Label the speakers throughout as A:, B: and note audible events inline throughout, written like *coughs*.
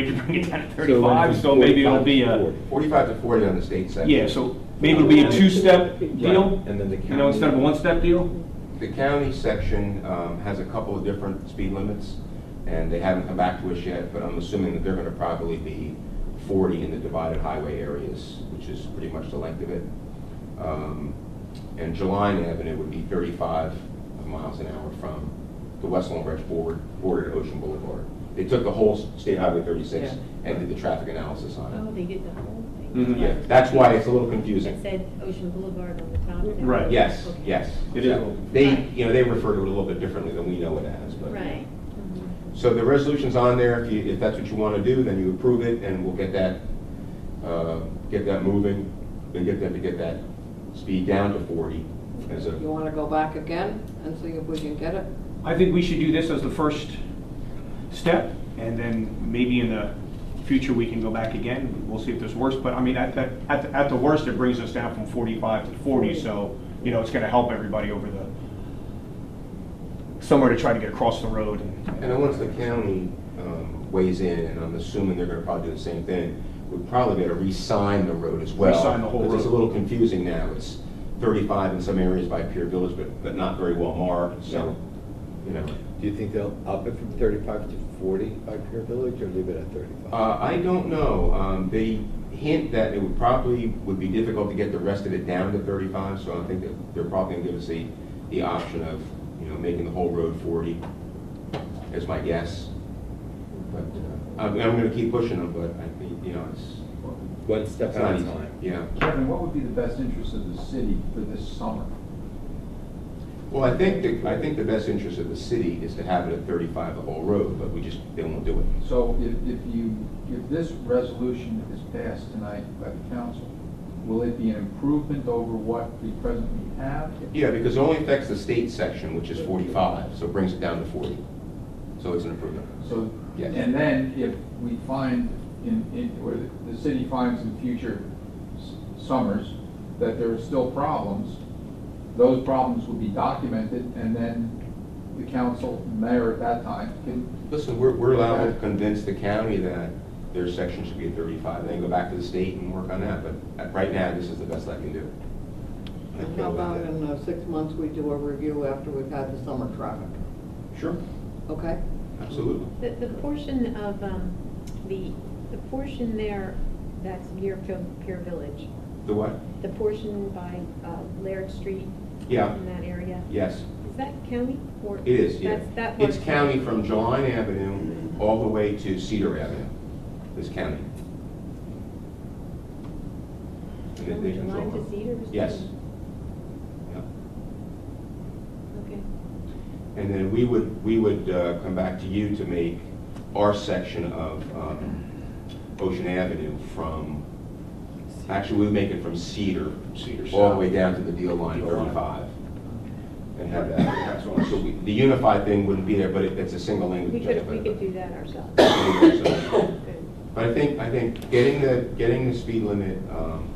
A: We could bring it down to 35, so maybe it'll be a,
B: 45 to 40 on the state side.
A: yeah, so maybe it'll be a two-step deal,
C: Right, And then the
A: you know, instead of a
C: county,
A: one-step deal?
B: The county section um, has a couple of different speed limits, and they haven't come back to us yet, but I'm assuming that they're going to probably be 40 in the divided highway areas, which is pretty much the length of it. Um, And Jeline Avenue would be 35 miles an hour from the West Long Branch board- border to Ocean Boulevard. They took the whole State Highway 36 and did the traffic analysis on it.
D: Oh, they did the whole thing?
A: Mhm.
B: Mm-hmm, Yeah, that's why it's a little confusing.
D: It said Ocean Boulevard on the top there.
A: Right.
B: Yes,
D: Okay.
B: yes.
A: It is.
B: They, you know, they refer to it a little bit differently than we know it as, but.
D: Right.
B: So the resolution's on there, if you, if that's what you want to do, then you approve it, and we'll get that, uh, get that moving, and get them to get that speed down to forty as
E: You
B: a,
E: want to go back again and see if we can get it?
A: I think we should do this as the first step, and then maybe in the future, we can go back again, we'll see if there's worse, but I mean, at, the- at, the- at the worst, it brings us down from 45 to 40, so, you know, it's gonna help everybody over the, somewhere to try to get across the road.
B: and then once the county, um, weighs in, and I'm assuming they're gonna probably do the same thing, we'd probably better re-sign the road as well.
A: Re-sign the whole
B: Because It's a
A: road.
B: little confusing now, it's thirty-five in some areas by Pier Village, but, but not very well marked, so, you know.
C: do you think they'll up it from 35 to 40 by Pier Village or leave it at 35?
B: Uh, I don't know. Um, They hint that it would probably, would be difficult to get the rest of it down to 35, so I think that they're probably going to give us the, the option of, you know, making the whole road 40, is my guess. But uh, I'm, I'm going to keep pushing them, but I think, you know, it's,
C: One step
B: it's
C: at
B: not
C: a
B: easy.
C: time.
B: Yeah.
F: Kevin, what would be the best interest of the city for this summer?
B: Well, I think, the- I think the best interest of the city is to have it at 35 the whole road, but we just, they won't do it.
F: So if, if you, if this resolution is passed tonight by the council, will it be an improvement over what we presently have?
B: Yeah, because it only affects the state section, which is 45, so it brings it down to 40. So it's an improvement.
F: So,
B: Yes.
F: and then if we find in, in, or the- the city finds in future s- summers that there are still problems, those problems will be documented and then the council, mayor at that time can
B: Listen, we're, we're allowed to convince the county that their section should be at thirty-five, then go back to the state and work on that, but uh, right now, this is the best I can do. I
E: And
B: feel
E: how about
B: about that.
E: in uh, six months, we do a review after we've had the summer traffic,
B: Sure,
E: okay?
B: absolutely.
D: The, the portion of, um, the, the portion there that's near Pier Pier Village,
B: The what?
D: the portion by uh, Laird Street.
B: Yeah.
D: In that area,
B: Yes,
D: is that county or?
B: it is, yeah.
D: That's, that
B: It's
D: part's-
B: county from Jeline Avenue all the way to Cedar Avenue, It's county. And they-
D: From
B: they control
D: July
B: it.
D: to Cedar? is
B: Yes. Yeah.
D: that- Okay.
B: And then we would, we would uh, come back to you to make our section of um, Ocean Avenue from, actually, we would make it from Cedar,
C: Cedar
B: all the
C: South.
B: way down to the deal line
C: Deal line.
B: 35. And have that, so we- the unified thing wouldn't be there, but it- it's a single language.
D: We could, we
B: but-
D: could do that ourselves.
B: *coughs* So-
D: Good.
B: But I think, I think getting the, getting the speed limit um,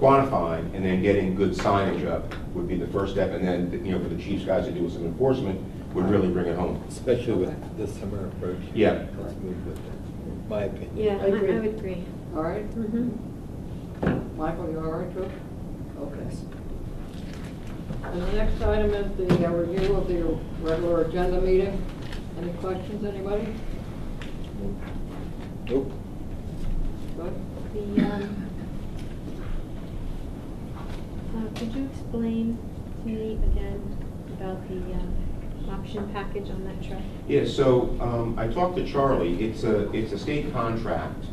B: quantified and then getting good signage up would be the first step. And then, you know, for the chief's guys to do with some enforcement would really bring it home.
C: Especially
E: Okay.
C: with the summer approach.
B: Yeah.
C: Let's move with it, my opinion.
D: Yeah, I I
E: Agreed.
D: would agree.
E: All right,
D: Mhm.
E: Michael, you all right, too? Okay. And the next item is the uh, review of the regular agenda meeting. Any questions, anybody?
C: Nope.
E: Good?
D: The, um, uh, could you explain to me again about the um, option package on that truck?
B: Yeah, so um, I talked to Charlie. It's a, it's a state contract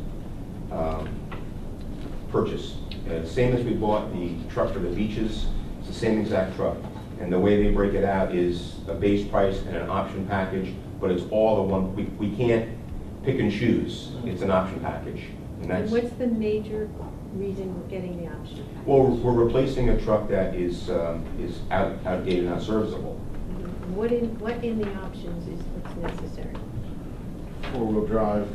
B: um, purchase. Uh, Same as we bought the truck for the beaches, it's the same exact truck. And the way they break it out is a base price and an option package, but it's all the one, we, we can't pick and choose. It's an option package. And
D: And
B: that's,
D: what's the major reason we're getting the option package?
B: well, we're replacing a truck that is, um, is out outdated, not serviceable.
D: Mm-hmm. What in, what in the options is what's necessary?
G: four-wheel drive,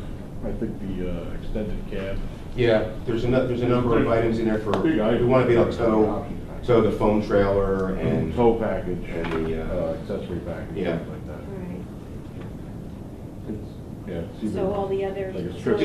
G: I think the uh, extended cab.
B: Yeah, there's a, nu- there's a number of items in there for, we
G: Big item.
B: want to be able to tow, tow the foam trailer and,
A: Oh.
G: Tow package.
B: and the,
G: uh,
B: uh,
G: Accessory package,
B: Yeah.
G: things like
D: All
G: that.
D: right.
G: It's-
D: Yeah. it's either
A: So all the other.
D: Like a strip